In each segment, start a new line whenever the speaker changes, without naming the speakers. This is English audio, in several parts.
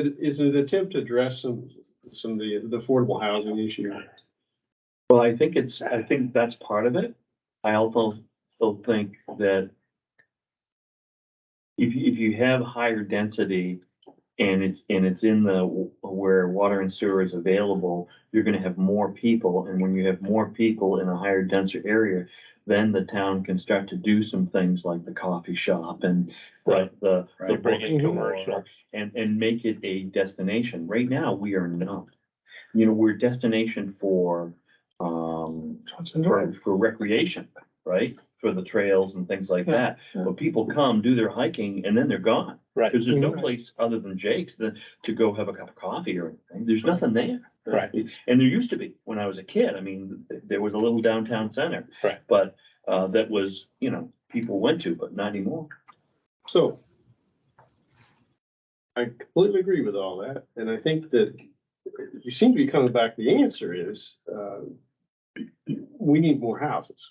It is an attempt to address some, some of the, the affordable housing issue.
Well, I think it's, I think that's part of it. I also still think that if, you- if you have higher density and it's, and it's in the, w- where water and sewer is available, you're gonna have more people, and when you have more people in a higher denser area, then the town can start to do some things like the coffee shop and the,
Right.
the. the
Right, bring it
bookstore
commercial.
and, and make it a destination. Right now, we are not. You know, we're destination for, um, for, for recreation, right? For the trails and things like that.
Yeah, yeah.
But people come, do their hiking, and then they're gone.
Right,
Cause there's no
Right.
place other than Jake's that, to go have a cup of coffee or anything. There's nothing there.
right,
And there used to be, when I was a kid, I mean, th- there was a little downtown center.
Right.
But, uh, that was, you know, people went to, but not anymore.
So. I completely agree with all that, and I think that you seem to be coming back, the answer is, uh, we need more houses.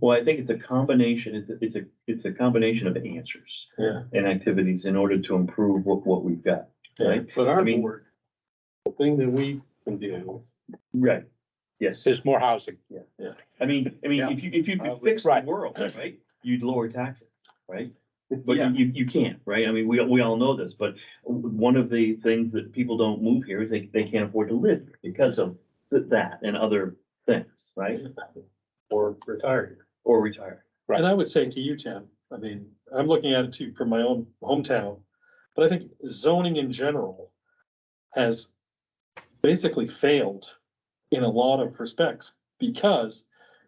Well, I think it's a combination, it's, a- it's a, it's a combination of answers.
Yeah.
And activities in order to improve what, what we've got, right?
But our
I mean-
board, the thing that we can deal with.
Right. Yes,
there's more housing.
I mean, I mean,
Yeah.
if you, if you
Uh,
could fix the
right.
world, right, you'd lower taxes, right? But you- you, you can't, right? I mean, we, we all know this, but one of the things that people don't move here is they, they can't afford to live here because of th- that and other things, right?
or retired.
Or retire.
Right.
And I would say to you, Tim, I mean, I'm looking at it too from my own hometown, but I think zoning in general has basically failed in a lot of respects, because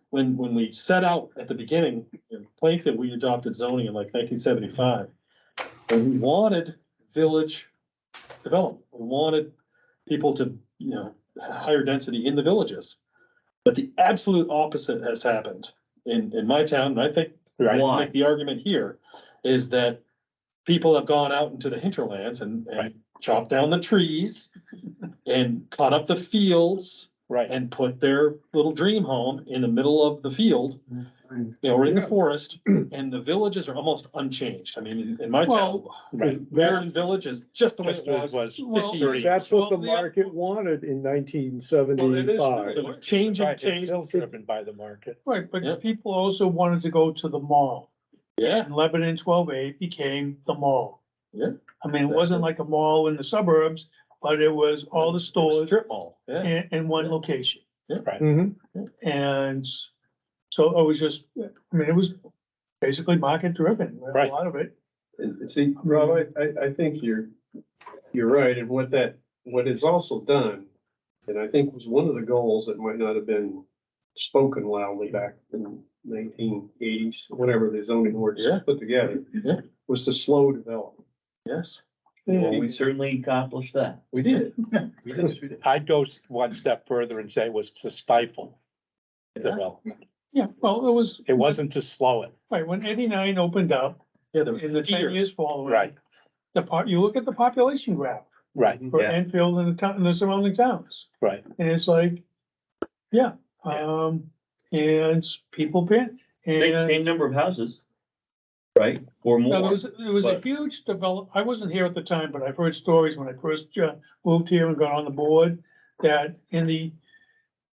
when, when we set out at the beginning, in Plankton, we adopted zoning in like nineteen seventy-five. And we wanted village development, we wanted people to, you know, higher density in the villages. But the absolute opposite has happened in, in my town, and I think, I
Well-
Right,
can
Why?
make the argument here, is that people have gone out into the hinterlands and, and
Right.
chopped down the trees and cut up the fields
right,
and put their little dream home in the middle of the field,
Mm-hmm.
you know, or in the forest, and the villages are almost unchanged. I mean, in- in my town,
right.
Marin Village is just the way
Just
it
as
was.
was
well,
fifty years.
That's what the
Well, the-
market wanted in nineteen
Well, it is
seventy-five.
true.
The Change
Right,
and
it's
change,
still driven by the market.
Right,
Yeah.
but people also wanted to go to the mall.
yeah,
And Lebanon twelve A became the mall.
Yeah.
I mean, it wasn't like a mall in the suburbs, but it was all the stores
strip mall, yeah,
in, in one location.
Mhm.
And so it was just, I mean, it was basically market driven, a
Right.
lot of it.
Uh, See, Rob, I, I, I think you're, you're right, and what that, what is also done, and I think was one of the goals that might not have been spoken loudly back in nineteen eighties, whenever the zoning ordinance
Yeah.
was put together,
Yeah.
was to slow development.
yes.
Well, we certainly accomplished that.
We did. We did.
I'd go s- one step further and say it was to stifle development.
Yeah, well, it was,
It wasn't to slow it.
right, when eighty-nine opened up,
Yeah, there was
in the ten
fear.
years following.
Right.
The part, you look at the population graph
Right,
for
Yeah.
Enfield and the town, and the surrounding towns.
right.
And it's like, yeah,
Yeah.
um, and people pin,
Same,
and
same number of houses, right? Or
now, there
more.
was, there was a
but-
huge develop, I wasn't here at the time, but I've heard stories when I first uh, moved here and got on the board, that in the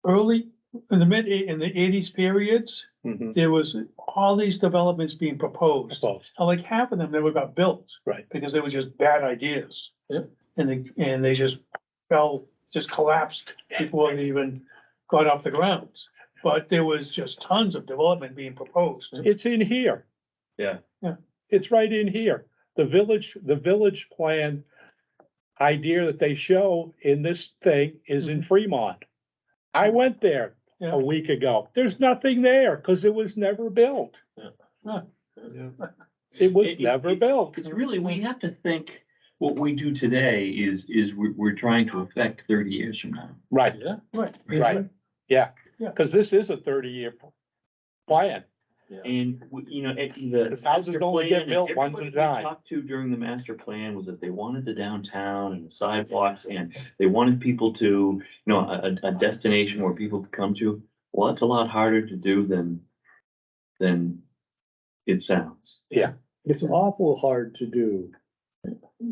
early, in the mid, in the eighties periods,
Mm-hmm.
there was all these developments being proposed. And like half of them never got built.
Right.
Because they were just bad ideas.
Yep.
And they, and they just fell, just collapsed before they even got off the ground. But there was just tons of development being proposed.
It's in here.
Yeah.
Yeah.
It's right in here. The village, the village plan idea that they show in this thing is
Mm-hmm.
in Fremont. I went there
Yeah.
a week ago. There's nothing there because it was never built.
Yeah.
It was
It- it-
never
it-
built.
It's really, we have to think, what we do today is, is we're, we're trying to affect thirty years from now.
Right,
Yeah,
Right. Mm-hmm.
right. Yeah,
Yeah.
because this is a thirty-year plan.
And, we- you know, it, the.
Because houses
master
don't
plan
get
and
built once
everybody
at a
we
time.
Talked to during the master plan was that they wanted the downtown and the sidewalks and they wanted people to, you know, a, a, a destination where people could come to. Well, that's a lot harder to do than, than it sounds.
It's awful hard to do.